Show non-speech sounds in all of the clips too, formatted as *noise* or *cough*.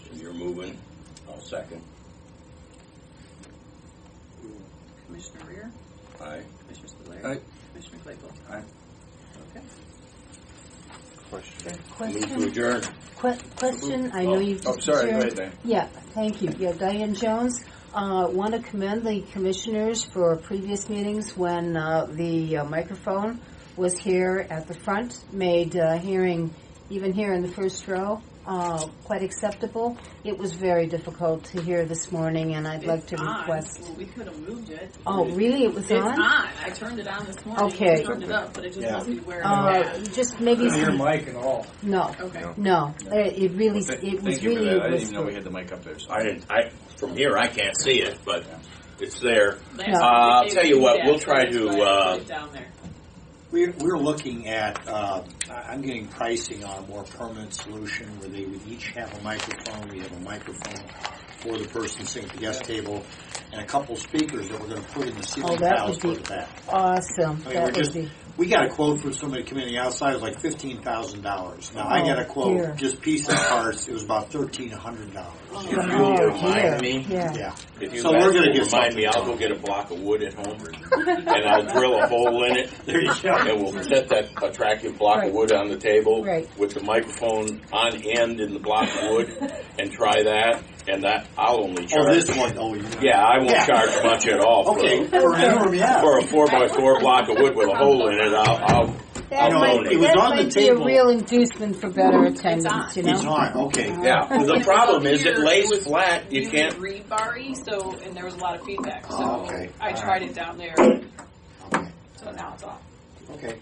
it. I'll second. Commissioner Rear, Aye. Commissioner Spudler. Aye. Commissioner Claypool. Aye. Okay. Question. Move to Question, adjourn. que- question, I know you. Oh, sorry, go Sharon- ahead, Diane. Yeah, thank you. Yeah, Diane Jones. Uh, want to commend the commissioners for previous meetings when uh, the uh, microphone was here at the front, made uh, hearing, even here in the first row, uh, quite acceptable. It was very difficult to hear this morning, and I'd like It's to on. request. Well, we could have moved it. Oh, really? It was It's on. I turned it on this morning. Okay. I turned it up, but it just Yeah. must be where it's Uh, at. just maybe some, mic at all. no, Okay. no. It, it really, Th- it was Thank you for really. that. I didn't even whisper. know we had the mic up there. so- I didn't, I, from here, I can't see it, but it's there. Last No. week Uh, I'll they tell you what, did we'll that, try so that's to, why I put uh, it down there. We're, we're looking at, uh, I- I'm getting pricing on a more permanent solution where they would each have a microphone. We have a microphone for the person sitting at the guest table and a couple speakers that we're going to put in the Oh, ceiling that tiles would for be- the back. Awesome. I mean, we're that would just, be. we got a quote from somebody coming outside, it was like fifteen thousand dollars. Now, I Oh, got dear. a quote, just piece and parts, it was about thirteen hundred dollars. If you Oh, will remind dear. me, Yeah. Yeah. if you So we're guys gonna will get remind me, I'll something. go get a block of wood at *laughs* home and I'll drill a hole in it. There you go. And we'll set that attractive block Right. of wood on the table Right. with the microphone on end in the block of wood and try that. And that, I'll only Oh, charge. this one, oh, you. Yeah, I won't Yeah. charge much at all. for- Okay, for an interim, yeah. For a four by four block of wood with a hole in it, I'll, I'll, That know, might, it was that on the might be a table. real inducement for better attendance, on. you It's know? on, okay. yeah. Well, The It's problem up is it here, lays was flat, you really can't rebar-y, so, and there was a lot of feedback, Oh, so okay. I All tried it down there, Okay, so now it's off. okay.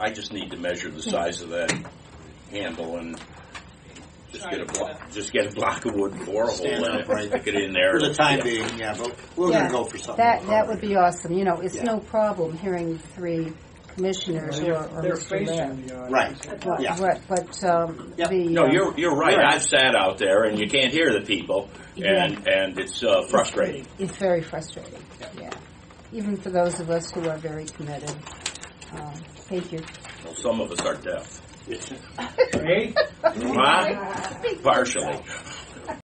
I just need to measure the size of that handle and just get a block, just get a block of wood and bore a hole in Stand it, upright. stick it in there. For the time being, yeah, but we're Yeah. gonna go for something. That, that would be awesome, you know, it's Yeah. no problem hearing three commissioners or or Mr. Mayor. Right, yeah. But- But, but, um, Yeah. the. No, um, you're, you're right. Right. I've sat out there and you can't hear the people and, and it's uh, frustrating. It's very frustrating, yeah. Even for those of us who are very committed. Um, Thank you. Well, some of us are deaf. It's- Huh? Partially.